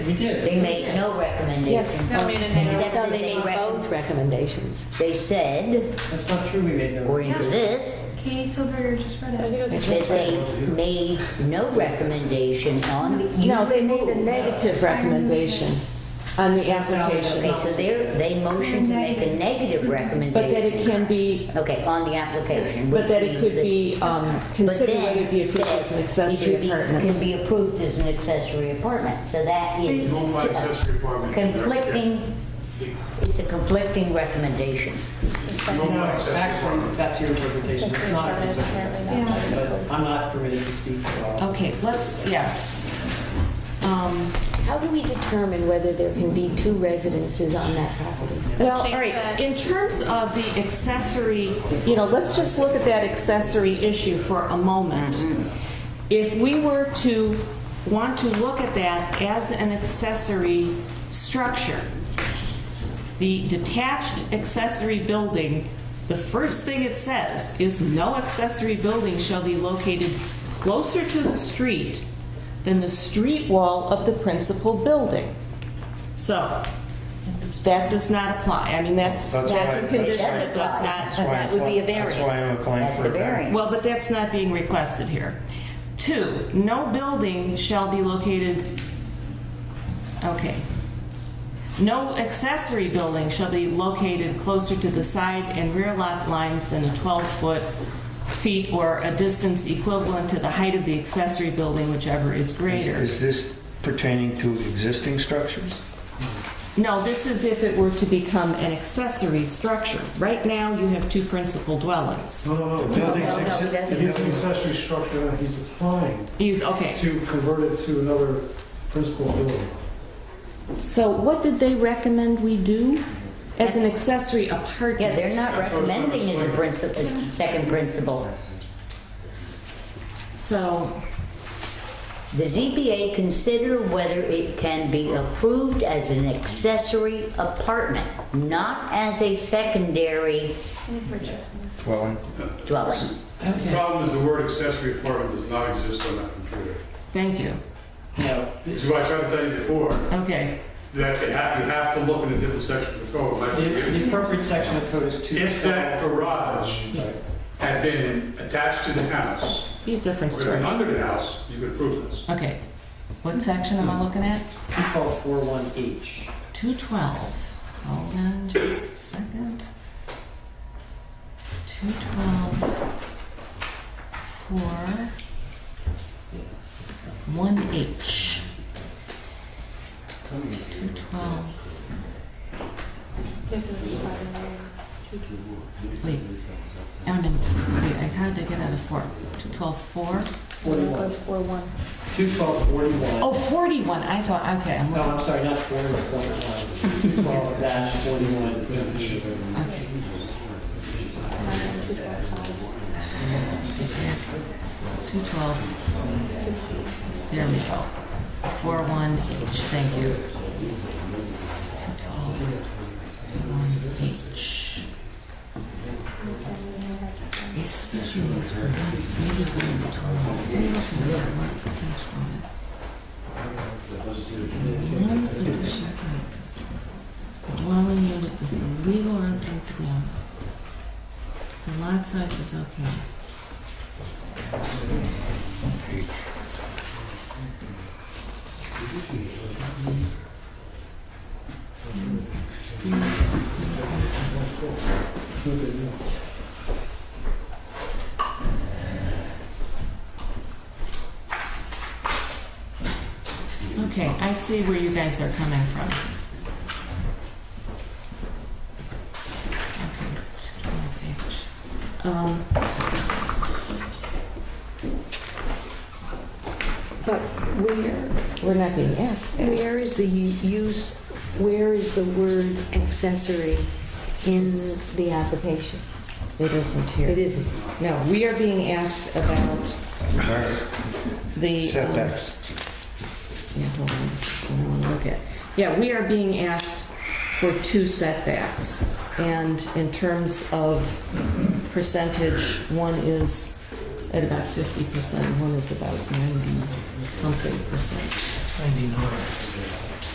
We did. They made no recommendation. No, I mean, and they- Except No, that they they made both recommend, recommendations. they said, That's not true, we made no. according to this, Katie Silberger just read I think it. it was that they made no recommendation on the. No, they made a negative recommendation on the Okay, application, so they're, they motioned to make a negative recommendation. but that it can be, Okay, on the application. but which that it means could that- be um, But considered then whether it be approved says as an it should accessory be- apartment. Can be approved as an accessory apartment, so that is. Rule five accessory apartment. Conflicting, The it's a conflicting recommendation. Rule No, five accessory actually, apartment. that's your interpretation, it's not. a consent. But I'm not permitted to speak for all. Oh. Okay, let's, yeah. Um, How do we determine whether there can be two residences on that property? Well, all right, in terms of the accessory, you know, let's just look at that accessory issue for a moment. If we were to want to look at that as an accessory structure, the detached accessory building, the first thing it says is no accessory building shall be located closer to the street than the street wall of the principal building. So, that does not apply. I mean, that's, That's that's a why- condition that that's why- does not That's why That would be a That's why I'm applying That's for the a variance. variance. well, but that's not being requested here. Two, no building shall be located, okay. No accessory building shall be located closer to the side and rear lot lines than a 12-foot feet or a distance equivalent to the height of the accessory building, whichever is greater. Is this pertaining to existing structures? No, this is if it were to become an accessory structure. Right now, you have two principal dwellings. No, no, no. Buildings no, he It doesn't. is an accessory structure that he's applying Is, okay. to convert it to another principal building. So what did they recommend we do as an accessory Yeah, they're apartment? not recommending as a principal, as second principle. So, The ZBA consider whether it can be approved as an accessory apartment, not as a secondary I think we're just. Well, dwelling. The problem is the word accessory apartment does not exist on that computer. thank you. No, Which is why I tried to tell you before, Okay, that you have, you have to look in a different section of the code. Like, the the appropriate section of code is two. If that garage had been attached to the house, be a different or story. under the house, you could approve this. Okay, what section am I looking at? Two twelve four one H. 212. Hold on just a second. 212, 4, 1H. 212, wait. I'm in, wait, I had to get out of 4. 212, 4? Forty-one. Oh. Two twelve forty-one. Oh, 41, I thought, okay, I'm No, I'm sorry, not forty-one point one. Two twelve dash forty-one H. Okay. Two twelve. There we go. Four one H, thank you. Two twelve, one H. A species was maybe one between single and one potential. One addition dwelling unit is the legal residence of the owner. The lot size is okay. Okay, I see where you guys are coming from. Um, But where, We're not being asked that. where is the u- use, where is the word accessory in the application? It isn't It here. isn't. No, we are being asked about the. um, setbacks. Yeah, hold on, this is what I want to look at. Yeah, we are being asked for two setbacks. And in terms of percentage, one is at about 50%, one is about 90 something percent.